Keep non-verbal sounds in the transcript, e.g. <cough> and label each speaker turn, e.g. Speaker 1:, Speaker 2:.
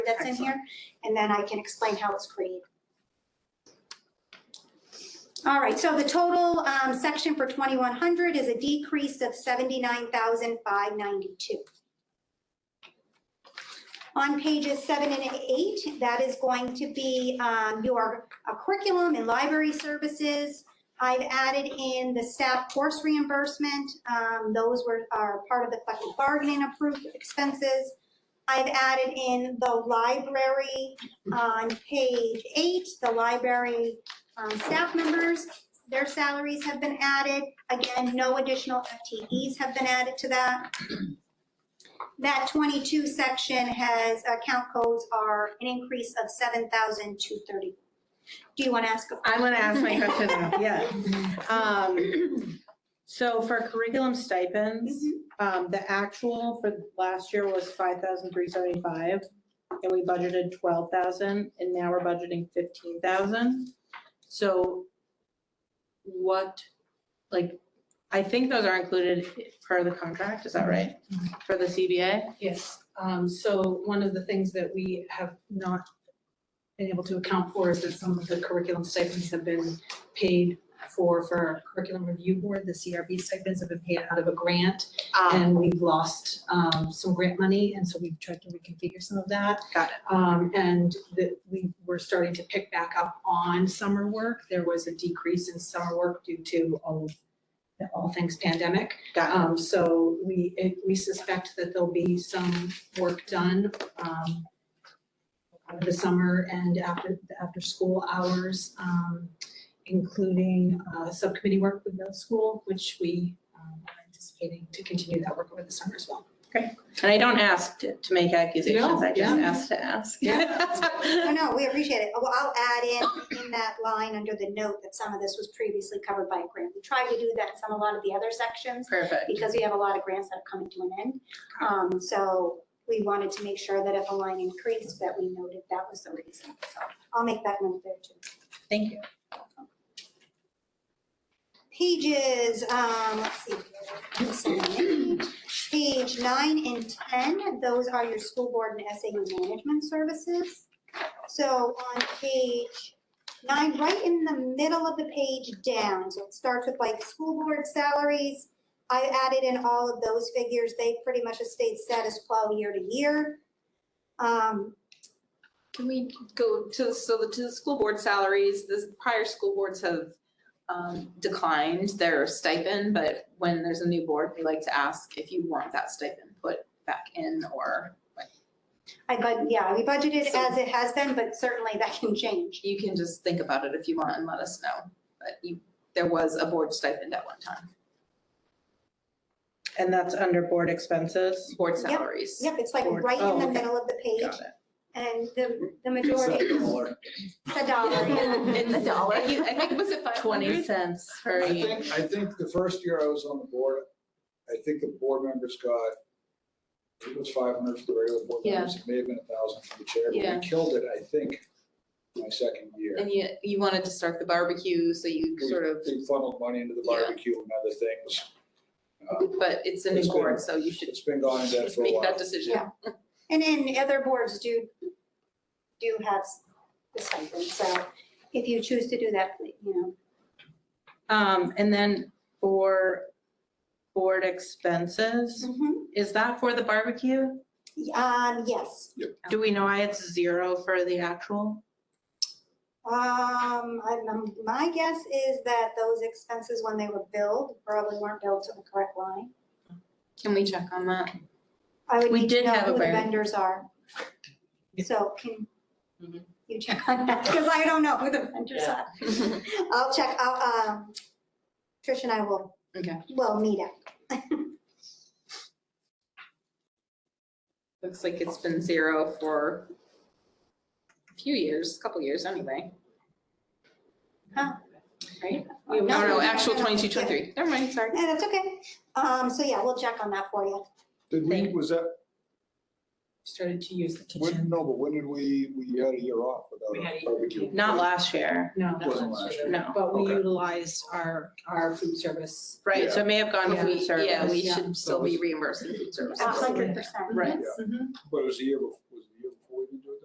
Speaker 1: that's in
Speaker 2: Excellent.
Speaker 1: here, and then I can explain how it's created. All right, so the total um, section for 2100 is a decrease of 79,592. On pages seven and eight, that is going to be um, your uh, curriculum and library services. I've added in the staff course reimbursement. Um, Those were, are part of the collective bargaining approved expenses. I've added in the library on page eight, the library um, staff members. Their salaries have been added. Again, no additional FTEs have been added to that. That 22 section has, account codes are an increase of 7,230. Do you want to ask?
Speaker 2: I'm gonna ask my question now, yeah. Um, So for curriculum stipends, um, the actual for last year was five thousand three seventy-five, and we budgeted twelve thousand, and now we're budgeting fifteen thousand. So what, like, I think those are included per the contract, is that right? For the CBA?
Speaker 3: Yes, um, so one of the things that we have not been able to account for is that some of the curriculum stipends have been paid for, for our curriculum review board, the CRB stipends have been paid out of a grant,
Speaker 2: Um,
Speaker 3: and we've lost, um, some grant money, and so we've tried to reconfigure some of that.
Speaker 2: Got
Speaker 3: it. Um, and that we were starting to pick back up on summer work, there was a decrease in summer work due to all, all things pandemic.
Speaker 2: Got
Speaker 3: Um, so we, it- we suspect that there'll be some work done, um, over the summer and after, after school hours, um, including, uh, subcommittee work with middle school, which we, um, are anticipating to continue that work over the summer as well.
Speaker 2: it. And I don't ask to to make accusations, I just
Speaker 3: yeah.
Speaker 2: ask to ask.
Speaker 1: No, no, we appreciate it. Well, I'll add in, in that line under the note that some of this was previously covered by a grant. We tried to do that in some, a lot of the other sections.
Speaker 2: <laughs> Perfect.
Speaker 1: because we have a lot of grants that are coming to an end. Um, so we wanted to make sure that if a line increased, that we noted that was the reason. So I'll make that note there too.
Speaker 2: Thank you.
Speaker 1: Pages, um, let's see. here, let's see, Page nine and 10, those are your school board and SAU management services. So on page nine, right in the middle of the page down, so it starts with like school board salaries. I added in all of those figures. They pretty much have stayed status quo year to year. Um,
Speaker 4: Can we go to, so the, to the school board salaries, the prior school boards have um, declined their stipend, but when there's a new board, we like to ask if you want that stipend put back in or
Speaker 1: I, but yeah, we budgeted
Speaker 4: So-
Speaker 1: as it has been, but certainly that can change.
Speaker 4: you can just think about it if you want and let us know. But you, there was a board stipend at one time,
Speaker 2: And that's under board expenses?
Speaker 4: board
Speaker 1: Yep,
Speaker 4: salaries.
Speaker 1: Yep, it's like
Speaker 2: Board.
Speaker 1: right
Speaker 2: Oh,
Speaker 1: in the
Speaker 2: okay.
Speaker 1: middle of the page,
Speaker 2: Got it.
Speaker 1: and the, the
Speaker 5: Is that
Speaker 1: majority, the
Speaker 5: smaller?
Speaker 4: <laughs>
Speaker 1: dollar, yeah.
Speaker 4: In the dollar, you- I think, was it five
Speaker 2: Twenty
Speaker 4: hundred?
Speaker 2: cents for
Speaker 5: I
Speaker 2: each.
Speaker 5: think, I think the first year I was on the board, I think the board members got, it was five hundred for the regular board
Speaker 4: Yeah.
Speaker 5: members, it may have been a thousand for the chair,
Speaker 4: Yeah.
Speaker 5: but we killed it, I think, my second year.
Speaker 4: And you, you wanted to start the barbecue, so you
Speaker 5: We-
Speaker 4: sort of,
Speaker 5: We funneled money into the
Speaker 4: Yeah.
Speaker 5: barbecue and other things. Uh,
Speaker 4: but it's a new
Speaker 5: It's been-
Speaker 4: board, so you should
Speaker 5: It's been going on that for a
Speaker 4: make
Speaker 5: while.
Speaker 4: that decision.
Speaker 1: Yeah. And then other boards do, do have the stipend, so if you choose to do that, you know,
Speaker 2: Um, and then for board expenses,
Speaker 1: Mhm.
Speaker 4: Mm-hmm.
Speaker 2: is that for the barbecue?
Speaker 1: um, yes.
Speaker 2: Do we know why it's zero for the actual?
Speaker 1: Um, I- um, my guess is that those expenses, when they were billed, probably weren't billed to the correct line.
Speaker 4: Can we check on <laughs> that?
Speaker 1: I would
Speaker 2: We
Speaker 1: need to
Speaker 2: did
Speaker 1: know
Speaker 2: have a
Speaker 1: who the
Speaker 2: very-
Speaker 1: vendors are. So can
Speaker 2: Mm-hmm.
Speaker 4: Mhm.
Speaker 1: you check on that, because I don't know who the vendors are. I'll check, I'll, um, Trish and I will.
Speaker 4: Okay.
Speaker 1: Will meet up.
Speaker 4: Looks like it's been zero for a few years, a couple years anyway.
Speaker 1: Huh.
Speaker 4: Right?
Speaker 1: No,
Speaker 4: No, no,
Speaker 1: no,
Speaker 4: actual
Speaker 1: no, no.
Speaker 4: 22, 23. Never mind, sorry.
Speaker 1: Yeah, that's okay. Um, so yeah, we'll check on that for you.
Speaker 5: Did we, was that,
Speaker 3: Started to use the
Speaker 5: when,
Speaker 3: kitchen.
Speaker 5: no, but when did we, we had a year off
Speaker 3: We
Speaker 5: without
Speaker 3: had a
Speaker 5: a
Speaker 3: year.
Speaker 5: barbecue?
Speaker 2: Not last year,
Speaker 3: No,
Speaker 5: Wasn't last year.
Speaker 2: no.
Speaker 3: but we
Speaker 5: Okay.
Speaker 3: utilized our, our food service.
Speaker 2: Right, so it may have gone
Speaker 3: Yeah.
Speaker 2: to food
Speaker 4: Yeah,
Speaker 2: service.
Speaker 4: we
Speaker 3: Yeah.
Speaker 4: should still be
Speaker 5: Service.
Speaker 4: reimbursing food service.
Speaker 1: A hundred percent.
Speaker 2: Right,
Speaker 5: But it was a year before,